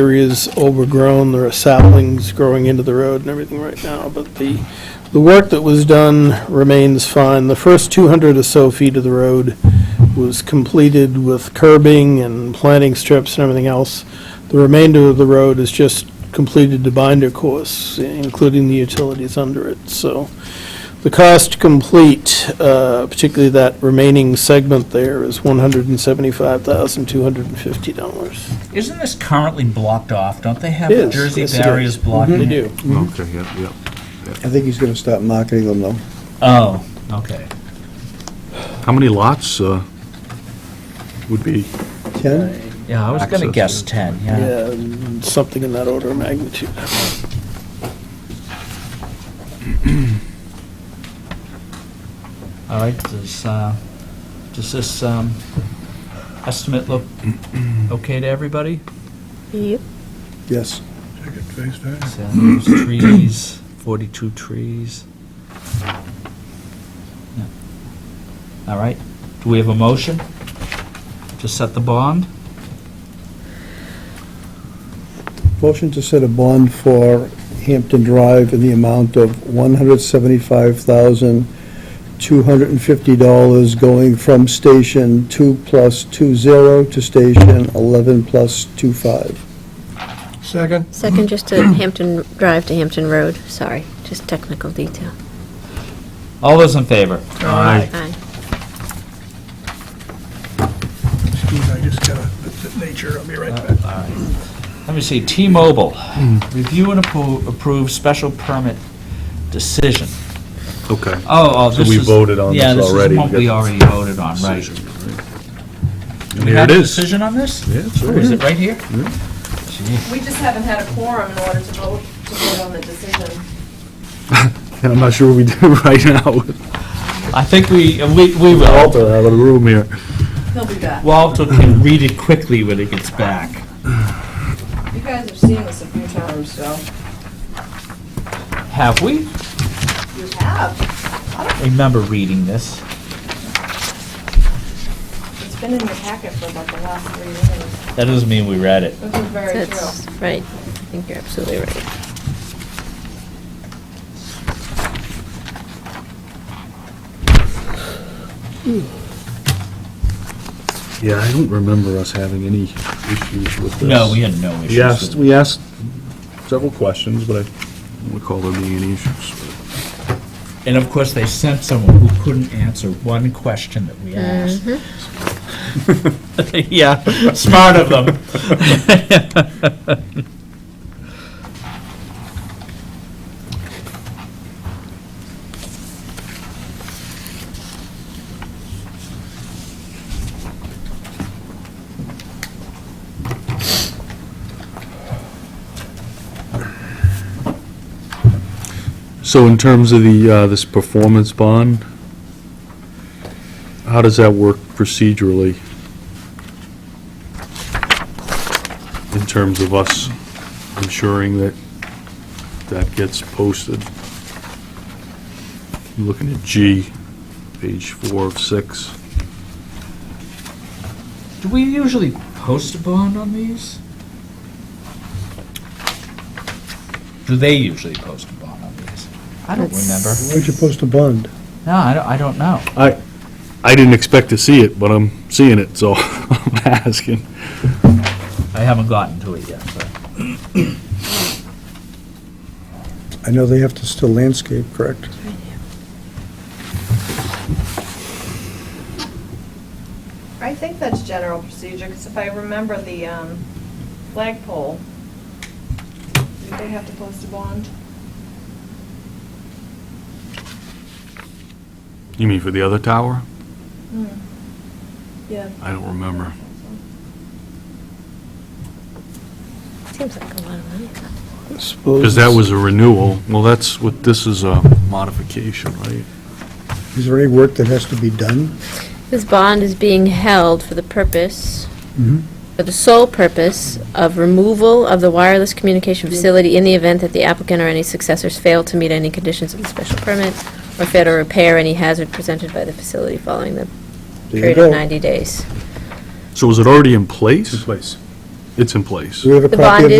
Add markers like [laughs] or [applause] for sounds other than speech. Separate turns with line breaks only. area's overgrown, there are saplings growing into the road and everything right now, but the, the work that was done remains fine. The first 200 or so feet of the road was completed with curbing and planting strips and everything else. The remainder of the road is just completed to binder course, including the utilities under it, so. The cost to complete, uh, particularly that remaining segment there, is $175,250.
Isn't this currently blocked off? Don't they have
It is. Mm-hmm.
Jersey
Yes, it is.
barriers blocking
They
it?
do.
Mm-hmm.
Okay, yeah, yeah.
I think he's gonna stop marketing them though.
Oh, okay.
How many lots uh, would be,
Ken?
Yeah, I was going to
Access,
guess 10, yeah.
Yeah, um, something in that order of magnitude.
All right, does, uh, does this um, estimate look okay to everybody?
Yep.
Yes.
So, those Trees, 42 trees. Yeah. All right, do we have a motion to set the bond?
Motion to set a bond for Hampton Drive in the amount of one hundred seventy-five thousand, two hundred and fifty dollars going from station two plus two zero to station eleven plus two five.
Second?
Second, just to Hampton Drive to Hampton Road, sorry, just technical detail.
All those in favor?
Aye.
Aye.
Excuse me, I just gotta, that's the nature, I'll be right back.
Let me see, T-Mobile, review and appro- approve special permit decision.
okay.
Oh, oh,
So
this is...
we voted on
yeah,
this already.
is what
We
we
got
already voted on, right.
Decision,
Do
And
we
here
have
it
a
is.
decision on this?
Yeah, it's
Or
right
is
here.
it right here?
We just haven't had a quorum in order to vote, to vote on the decision.
And I'm not sure what we [laughs] do right now.
I think we, uh, we we will.
Walter out of the room here.
He'll be back.
Walter can read it quickly when it gets back.
You guys have seen this a few times, so.
Have we?
You have.
Remember reading this.
It's been in your packet for about the last three years,
That doesn't mean we read it.
which is very true.
That's right, I think you're absolutely right.
Yeah, I don't remember us having any issues with this.
No, we had no issues.
We asked,
with it.
we asked several questions, but I don't recall there being any issues.
And of course, they sent someone who couldn't answer one question that we asked. [laughs] Yeah, smart of them.
So in terms of the, uh, this performance bond, how does that work procedurally? In terms of us ensuring that that gets posted? I'm Looking at G, page four of six.
Do we usually post a bond on these? Do they usually post a bond on these? I don't remember.
Where'd you post a bond?
No, I don't, I don't know.
I didn't expect to see it, but I'm seeing it, so [laughs] I'm asking.
I haven't gotten to it yet, but.
I know they have to still landscape, correct?
I think that's general procedure, because if I remember the um, flagpole, did they have to post a bond?
You mean for the other tower?
Hmm. Yeah.
I don't remember.
Seems like a lot of money.
Because that was a renewal. Well, that's what, this is a modification, right?
Is there any work that has to be done?
This bond is being held for the purpose, for the sole purpose of removal of the wireless communication facility in the event that the applicant or any successors fail to meet any conditions of the special permit or fail to repair any hazard presented by the facility following the
There you
period of
go.
90 days.
So is it already in place?
place.
It
it's in place.
Do we have a
The
copy
bond
of
is
it?